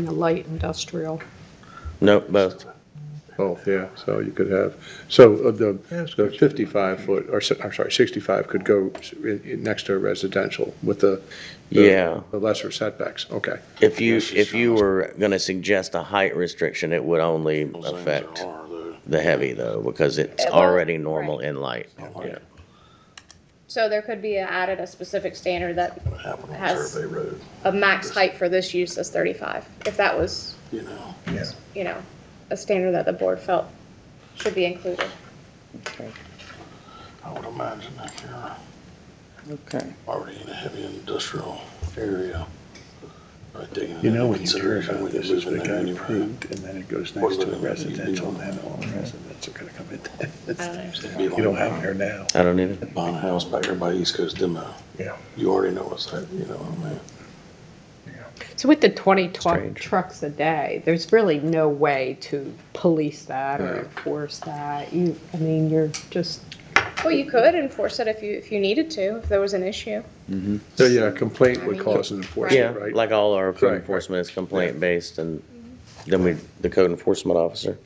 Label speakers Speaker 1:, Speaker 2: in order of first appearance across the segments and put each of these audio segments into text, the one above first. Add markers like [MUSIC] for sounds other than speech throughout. Speaker 1: in the light industrial.
Speaker 2: No, both.
Speaker 3: Both, yeah, so you could have, so uh, the, the fifty-five foot, or, si- I'm sorry, sixty-five could go s- in, in, next to a residential with the. the-
Speaker 2: Yeah.
Speaker 3: The lesser setbacks, okay.
Speaker 2: If you, if you were gonna suggest a height restriction, it would only affect the heavy though, because it's
Speaker 4: Well,
Speaker 2: already normal
Speaker 4: right.
Speaker 2: in light. Yeah.
Speaker 4: So there could be added a specific standard that
Speaker 5: Happened on
Speaker 4: Has-
Speaker 5: Survey Road,
Speaker 4: a max height for this use is thirty-five, if that was,
Speaker 5: you know.
Speaker 4: you know, a standard that the board felt should be included.
Speaker 5: I would imagine if you're
Speaker 6: Okay.
Speaker 5: already in a heavy industrial area. I think
Speaker 7: You know, when
Speaker 5: into
Speaker 7: you hear
Speaker 5: consideration
Speaker 7: about
Speaker 5: when you
Speaker 7: this, is
Speaker 5: move in
Speaker 7: it
Speaker 5: there
Speaker 7: got
Speaker 5: anyway.
Speaker 7: approved, and then it goes
Speaker 5: What
Speaker 7: next to
Speaker 5: would
Speaker 7: a
Speaker 5: it be?
Speaker 7: residential, then all the residents are gonna come in.
Speaker 5: [LAUGHS]
Speaker 4: I don't
Speaker 7: It's-
Speaker 4: understand.
Speaker 5: It'd be
Speaker 7: You don't
Speaker 5: like
Speaker 7: have it here now.
Speaker 2: I don't either.
Speaker 5: Buying a house back there by East Coast demo.
Speaker 7: Yeah.
Speaker 5: You already know what's that, you know what I mean?
Speaker 1: So with the 20 tw-
Speaker 2: Strange.
Speaker 1: trucks a day, there's really no way to police that or enforce that. You, I mean, you're just,
Speaker 4: Well, you could enforce it if you, if you needed to, if there was an issue.
Speaker 3: So, yeah, a complaint would cause an
Speaker 2: Yeah,
Speaker 3: enforcement, right?
Speaker 2: like all our
Speaker 3: Right,
Speaker 2: code
Speaker 3: right.
Speaker 2: enforcement is complaint based and then we, the code enforcement officer.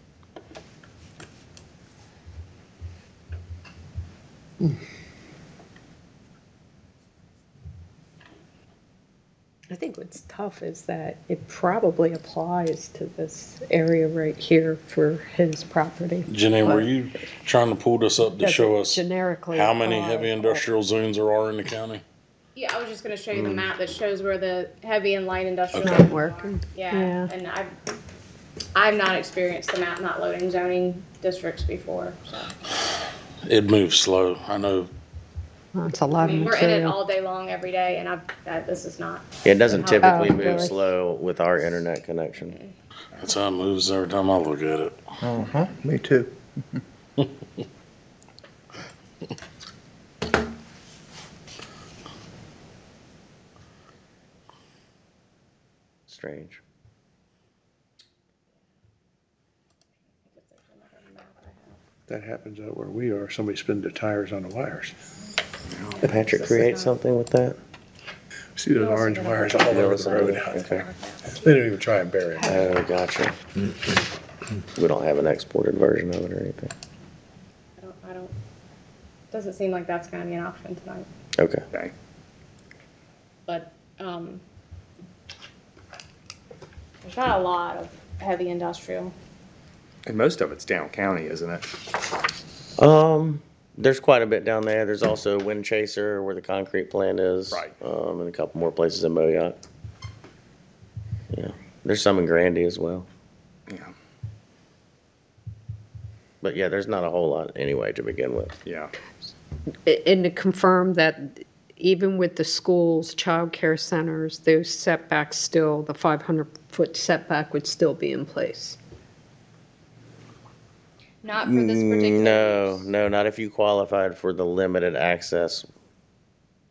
Speaker 1: I think what's tough is that it probably applies to this area right here for his property.
Speaker 8: Janine, were you trying to pull this up to show us
Speaker 1: Generically.
Speaker 8: how many
Speaker 1: apply.
Speaker 8: heavy industrial zones there are in the county?
Speaker 4: Yeah, I was just gonna show you
Speaker 5: Hmm.
Speaker 4: the map that shows where the heavy and light industrial.
Speaker 1: Not
Speaker 4: are.
Speaker 1: working.
Speaker 4: Yeah,
Speaker 1: Yeah.
Speaker 4: and I've, I've not experienced the map not loading zoning districts before, so.
Speaker 8: It moves slow. I know
Speaker 1: That's a
Speaker 4: I
Speaker 1: lot of
Speaker 4: mean, we're in it
Speaker 1: material.
Speaker 4: all day long, every day, and I've, uh, this is not.
Speaker 2: It doesn't typically
Speaker 1: Oh,
Speaker 2: move
Speaker 1: really?
Speaker 2: slow with our internet connection.
Speaker 8: that's how it moves every time I look at it.
Speaker 7: Uh-huh, me too.
Speaker 2: Strange.
Speaker 3: That happens out where we are, somebody spins their tires on the wires.
Speaker 2: Patrick, create something with that?
Speaker 3: See those orange wires all
Speaker 2: No,
Speaker 3: over
Speaker 2: it's
Speaker 3: the
Speaker 2: not.
Speaker 3: road out there.
Speaker 2: Okay.
Speaker 3: They don't even try and bury them.
Speaker 2: Oh, gotcha. We don't have an exported version of it or anything.
Speaker 4: I don't, I don't, doesn't seem like that's gonna be an option tonight,
Speaker 2: Okay.
Speaker 4: but, um, there's not a lot of heavy industrial.
Speaker 9: And most of it's down county, isn't it?
Speaker 2: Um, there's quite a bit down there. There's also Wind Chaser where the concrete plant is.
Speaker 9: Right.
Speaker 2: Um, and a couple more places in Moyoc. Yeah, there's some in Grandy as well.
Speaker 9: Yeah.
Speaker 2: But yeah, there's not a whole lot anyway to begin with.
Speaker 9: Yeah.
Speaker 1: A- And to confirm that even with the schools, childcare centers, those setbacks still, the 500-foot setback would still be in place.
Speaker 4: Not for this particular.
Speaker 2: No,
Speaker 4: use.
Speaker 2: no, not if you qualified for the limited access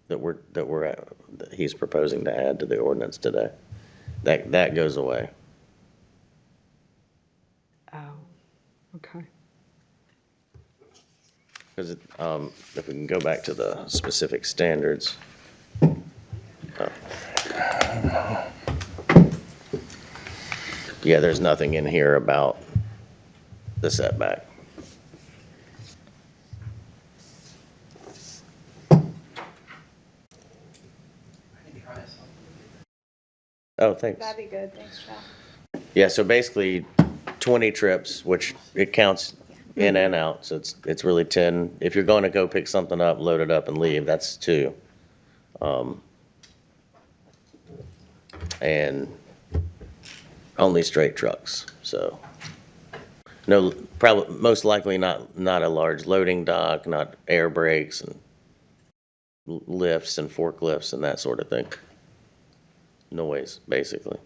Speaker 2: that we're, that we're, at- that he's proposing to add to the ordinance today. That, that goes away.
Speaker 1: Oh, okay.
Speaker 2: Because it, um, if we can go back to the specific standards. Oh. Yeah, there's nothing in here about the setback. Oh, thanks.
Speaker 4: That'd be good, thanks, Chad.
Speaker 2: Yeah, so basically twenty trips, which it counts in and out, so it's, it's really ten. If you're going to go pick something up, load it up and leave, that's two. Um, And only straight trucks, so. No, probably, most likely not, not a large loading dock, not air brakes and l- lifts and forklifts and that sort of thing. Noise, basically.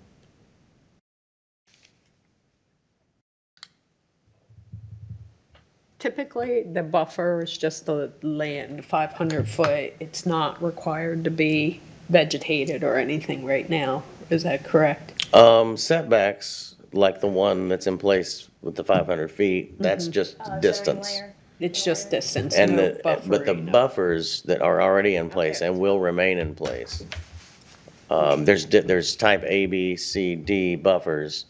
Speaker 1: Typically, the buffer is just the land, 500-foot. It's not required to be vegetated or anything right now. Is that correct?
Speaker 2: Um, setbacks, like the one that's in place with the five hundred feet, that's just
Speaker 4: Uh, zoning
Speaker 2: distance.
Speaker 4: layer.
Speaker 1: It's just distance,
Speaker 2: And
Speaker 1: Mm-hmm. no
Speaker 2: the, eh, but the
Speaker 1: buffering.
Speaker 2: buffers that are already in place
Speaker 4: Okay.
Speaker 2: and will remain in place Um, there's, di- there's type A, B, C, D buffers.